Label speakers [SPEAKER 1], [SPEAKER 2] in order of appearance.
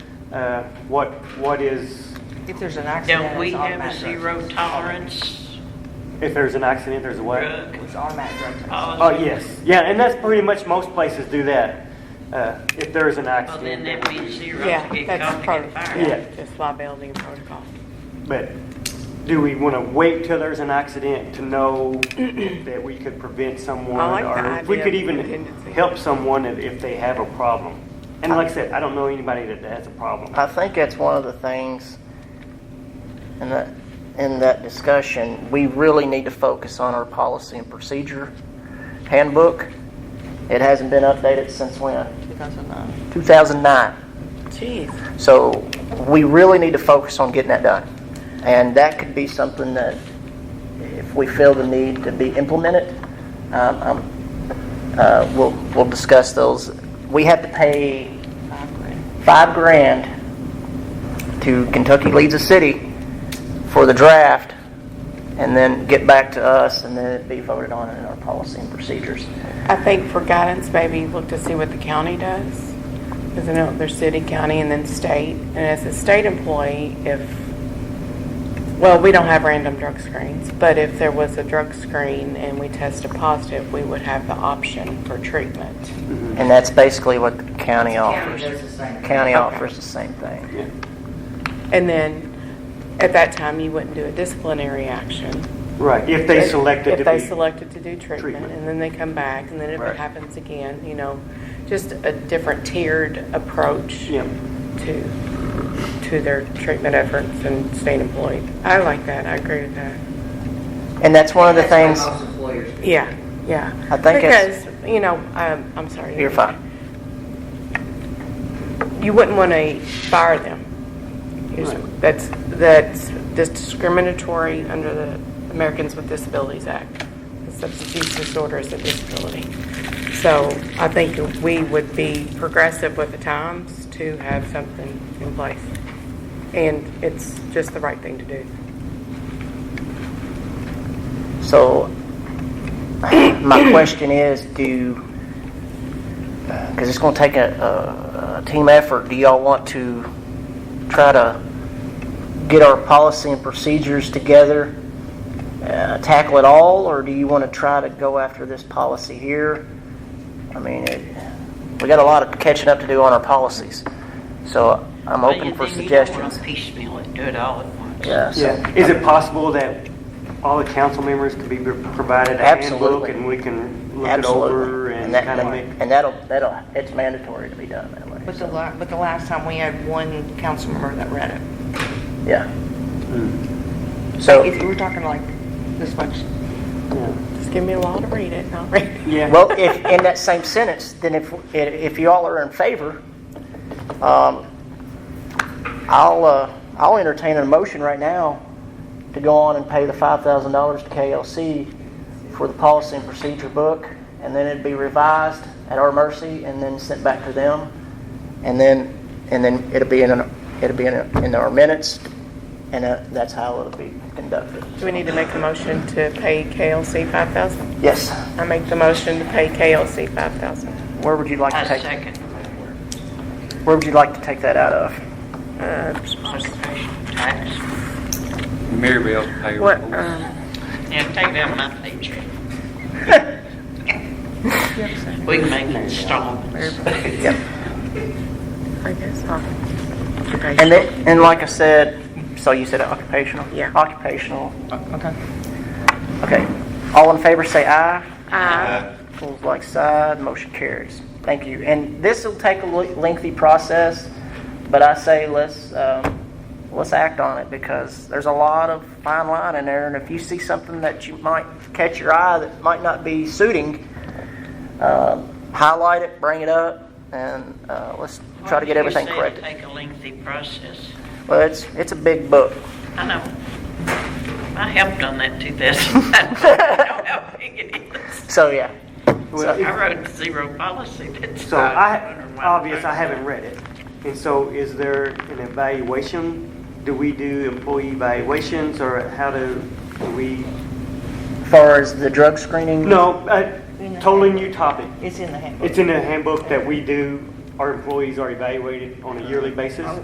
[SPEAKER 1] uh, what, what is,
[SPEAKER 2] If there's an accident,
[SPEAKER 3] Don't we
[SPEAKER 2] it's
[SPEAKER 3] have a
[SPEAKER 2] automatic.
[SPEAKER 3] zero tolerance
[SPEAKER 1] if there's an accident, there's a what?
[SPEAKER 3] drug
[SPEAKER 2] It's automatic drug test.
[SPEAKER 1] Oh,
[SPEAKER 3] policy?
[SPEAKER 1] yes, yeah, and that's pretty much, most places do that, uh, if there is an
[SPEAKER 3] Well, then
[SPEAKER 1] accident.
[SPEAKER 3] that
[SPEAKER 1] there would
[SPEAKER 3] means
[SPEAKER 1] be-
[SPEAKER 3] zero to
[SPEAKER 4] Yeah,
[SPEAKER 3] get caught
[SPEAKER 4] that's
[SPEAKER 3] to
[SPEAKER 4] part of,
[SPEAKER 3] get fired.
[SPEAKER 1] Yeah.
[SPEAKER 4] yeah, it's liability and protocol.
[SPEAKER 1] But do we want to wait till there's an accident to know that we could prevent someone?
[SPEAKER 4] I like the
[SPEAKER 1] or if we
[SPEAKER 4] idea
[SPEAKER 1] could
[SPEAKER 4] of
[SPEAKER 1] even
[SPEAKER 4] contingency.
[SPEAKER 1] help someone if, if they have a problem. And like I said, I don't know anybody that has a problem.
[SPEAKER 5] I think that's one of the things in that, in that discussion, we really need to focus on our policy and procedure handbook. It hasn't been updated since when?
[SPEAKER 2] 2009.
[SPEAKER 5] 2009.
[SPEAKER 4] Jeez.
[SPEAKER 5] So we really need to focus on getting that done. And that could be something that, if we feel the need to be implemented, um, um, uh, we'll, we'll discuss those. We have to pay five grand to Kentucky Leads a City for the draft and then get back to us and then it'd be voted on in our policy and procedures.
[SPEAKER 4] I think for guidance, maybe look to see what the county does. Because I know there's city, county, and then state. And as a state employee, if, well, we don't have random drug screens, but if there was a drug screen and we tested positive, we would have the option for treatment.
[SPEAKER 5] And that's basically what the county
[SPEAKER 3] Oh.
[SPEAKER 5] offers.
[SPEAKER 2] does the same.
[SPEAKER 5] County
[SPEAKER 4] Okay.
[SPEAKER 5] offers the same thing.
[SPEAKER 1] Yeah.
[SPEAKER 4] And then, at that time, you wouldn't do a disciplinary action.
[SPEAKER 1] Right, if they selected to
[SPEAKER 4] If they
[SPEAKER 1] be,
[SPEAKER 4] selected to do treatment,
[SPEAKER 1] Treatment.
[SPEAKER 4] and then they come back, and then if
[SPEAKER 1] Right.
[SPEAKER 4] it happens again, you know, just a different tiered approach
[SPEAKER 1] yeah,
[SPEAKER 4] to, to their treatment efforts and staying employed. I like that, I agree with that.
[SPEAKER 5] And that's one of the things.
[SPEAKER 4] Yeah, yeah.
[SPEAKER 5] I think it's-
[SPEAKER 4] Because, you know, um, I'm sorry.
[SPEAKER 5] You're fine.
[SPEAKER 4] You wouldn't want to fire them. You just-
[SPEAKER 1] Right.
[SPEAKER 4] That's, that's that's discriminatory under the Americans with Disabilities Act. The Substance use disorder is a disability. So I think that we would be progressive with the times to have something in place. And it's just the right thing to do.
[SPEAKER 5] So, my question is, do, because it's going to take a, a, a team effort, do y'all want to try to get our policy and procedures together, uh, tackle it all, or do you want to try to go after this policy here? I mean, it, we got a lot of catching up to do on our policies, so I'm
[SPEAKER 3] Well,
[SPEAKER 5] open
[SPEAKER 3] you-
[SPEAKER 5] for
[SPEAKER 3] then you don't wanna
[SPEAKER 5] suggestions.
[SPEAKER 3] Piecemeal it, do it all at once.
[SPEAKER 5] Yeah, so-
[SPEAKER 1] yeah. Is it possible that all the council members could be provided a handbook
[SPEAKER 5] Absolutely.
[SPEAKER 1] and we can look it
[SPEAKER 5] Absolutely.
[SPEAKER 1] over and
[SPEAKER 5] that-
[SPEAKER 1] kind of make?
[SPEAKER 5] And that'll, that'll, it's mandatory to be done that way.
[SPEAKER 2] But the, la- but the last time we had one council member that read it.
[SPEAKER 5] Yeah.
[SPEAKER 2] So
[SPEAKER 5] So,
[SPEAKER 2] if you were talking like this much,
[SPEAKER 1] yeah.
[SPEAKER 4] Just give me a law to read it, and I'll read it.
[SPEAKER 1] Yeah.
[SPEAKER 5] well, if, in that same sentence, then if, if you all are in favor, um, I'll, uh, I'll entertain a motion right now to go on and pay the five thousand dollars to KLC for the policy and procedure book, and then it'd be revised at our mercy and then sent back to them. And then, and then it'll be in, an- it'll be in, a- in our minutes, and uh, that's how it'll be conducted.
[SPEAKER 4] Do we need to make a motion to pay KLC 5,000?
[SPEAKER 5] Yes,
[SPEAKER 4] I make the motion to pay KLC 5,000.
[SPEAKER 5] where would you like
[SPEAKER 3] I
[SPEAKER 5] to take,
[SPEAKER 3] second
[SPEAKER 5] where would you like to take that out of?
[SPEAKER 3] occupation tax.
[SPEAKER 6] Mary Bell's pay
[SPEAKER 4] What,
[SPEAKER 6] report.
[SPEAKER 4] um,
[SPEAKER 3] Yeah, take that my paycheck. We can make installments.
[SPEAKER 4] I guess, Oh. occupational.
[SPEAKER 5] And it, and like I said, so you said occupational?
[SPEAKER 4] Yeah.
[SPEAKER 5] Occupational. Okay. Okay. All in favor, say aye. Aye. Pulls like side, motion carries. Thank you. And this will take a le- lengthy process, but I say let's, um, let's act on it because there's a lot of fine line in there. And if you see something that you might catch your eye that might not be suiting, uh, highlight it, bring it up, and, uh, let's try to get everything
[SPEAKER 3] correct.
[SPEAKER 5] corrected.
[SPEAKER 3] Take a lengthy process.
[SPEAKER 5] Well, it's, it's a big book.
[SPEAKER 3] I know. I helped on that 2009. I know how big it is.
[SPEAKER 5] So, yeah.
[SPEAKER 1] Well,
[SPEAKER 3] I wrote zero policy. That's
[SPEAKER 1] So
[SPEAKER 3] not
[SPEAKER 1] I,
[SPEAKER 3] under my
[SPEAKER 1] obvious, I
[SPEAKER 3] purview.
[SPEAKER 1] haven't read it. And so is there an evaluation? Do we do employee evaluations or how do do we?
[SPEAKER 5] As far as the drug screening?
[SPEAKER 1] No, uh, totally new topic.
[SPEAKER 2] it's in the handbook.
[SPEAKER 1] It's in the handbook that we do, our employees are evaluated on a yearly basis.